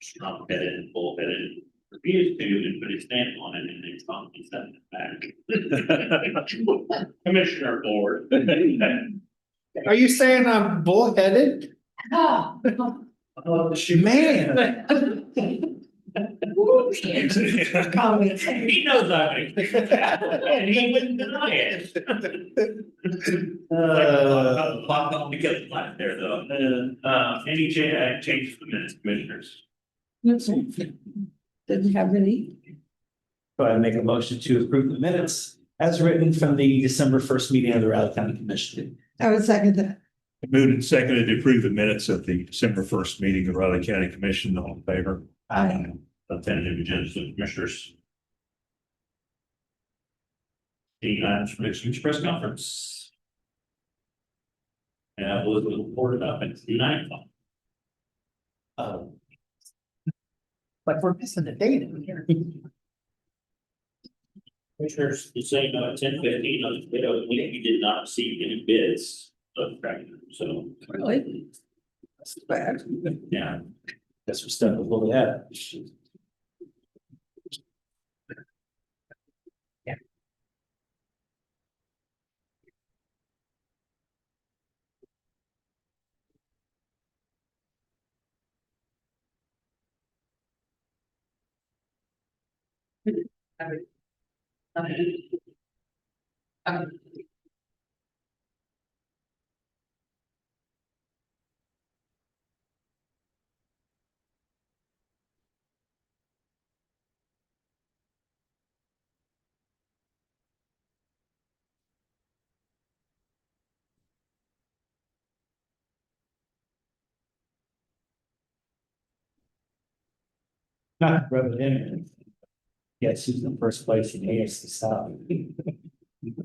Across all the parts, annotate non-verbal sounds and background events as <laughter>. shrunk it and full it and refused to and put his stamp on it and it's not, he sent it back. <laughs> Commissioner Board. Are you saying I'm bullheaded? Oh, Man. woo, yeah. Call me. He knows I am and he wouldn't deny it. Uh, Clock on to get the light there though. Uh, any cha- change for the minutes, commissioners? Didn't have any. Go ahead and make a motion to approve the minutes as written from the December first meeting of the Riley County Commission. I would second that. Moved and seconded to approve the minutes of the December first meeting of Riley County Commission, all in favor? Aye. The tentative agenda for the commissioners. Any items from this week's press conference? And I was reported up at nine o'clock. Um, But we're missing the date in here. Commissioners, you say about ten fifteen, on the bid, we we did not receive any bids of tractor, so, Really? That's bad. yeah. Guess we're stuck with what we have. Not rubbing it in. Yes, who's in first place in AS to stop.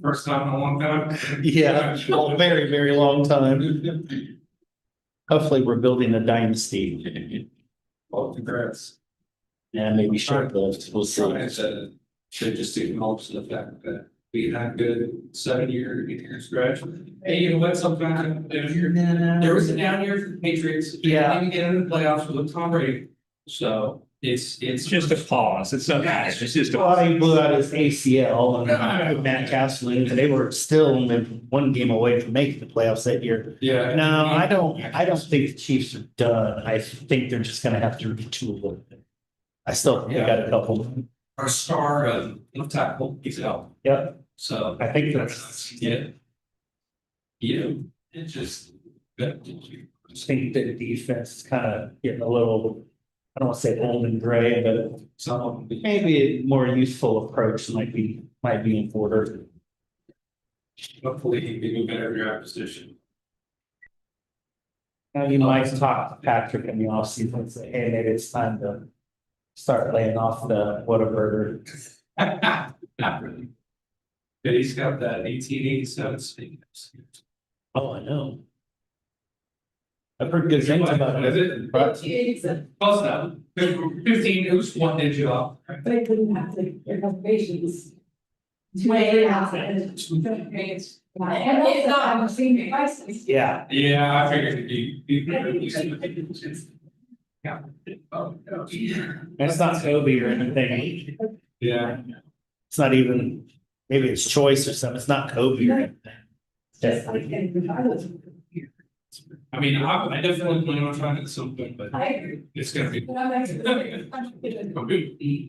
First time in a long time. Yeah, a very, very long time. Hopefully, we're building a dynasty. Well, congrats. And maybe short lived, we'll I see. said, should just acknowledge the fact that we had good seven year, eight years graduate. Hey, you know what, sometime if you're, there was a down year for the Patriots. They Yeah. Didn't even get into the playoffs with Tom Brady. So it's, it's. It's just a pause. It's not, it's just a. Well, he blew out his ACL and Matt Castle, and they were still only one game away from making the playoffs that year. Yeah. No, I don't, I don't think the Chiefs are done. I think they're just gonna have to retool a little bit. I still, think they got a couple, Our star of left tackle, he's out, yeah, so. I think that's, Yeah. You, it just. that- I think that the defense is kind of getting a little, I don't want to say old and gray, but Some of them. maybe a more youthful approach might be, might be in order. Hopefully he can do better in your opposition. Now, you might talk to Patrick in the offseason and say, hey, maybe it's time to start laying off the whatever. Not really. But he's got that eighteen eighty-seven speed. Oh, I know. I've heard good things about Is it. it? but- Close enough. Fifteen, it was one digit off. They couldn't have to, their reservations. Way out. out. And It's not, I'm seeing it twice. Yeah. Yeah, I figured you. you- Yeah. Oh, no. And it's not Kobe or anything. <laughs> Yeah, It's not even, maybe it's choice or something. It's not Kobe or anything. just like regardless. I mean, I, I definitely plan on trying to do something, but I agree. it's gonna be. <laughs> But I'm actually.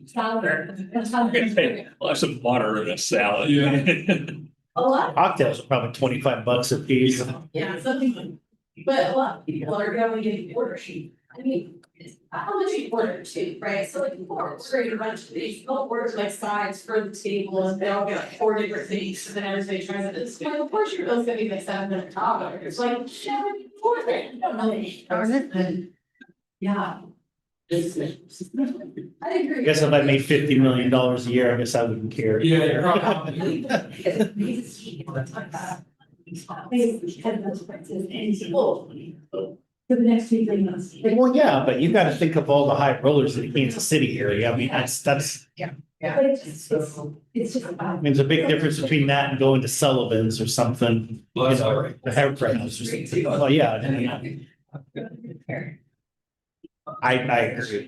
Sounder. Well, some water in a salad. <laughs> A lot, Cocktails are probably twenty-five bucks a piece. yeah, something, like- but a lot of people are going to get order sheet. I mean, it's- how much you order too, right? So like people are ordering a bunch of these, they'll order like sides for the table and they all get like four different things and then everybody tries it. It's like, of course your bill's gonna be like seven hundred dollars. It's like, shit, what are you ordering? You don't know. Darn it. And, Yeah. This is- I I agree. guess if I made fifty million dollars a year, I guess I wouldn't care. Yeah, you're probably. <laughs> For the next few months. Well, yeah, but you gotta think of all the high rollers in Kansas City area. I mean, that's, that's, But it's just, it's, it's just about. I mean, there's a big difference between that and going to Sullivan's or something. Well, that's all right. The hair brands or something. Well, yeah, I mean, I, I agree.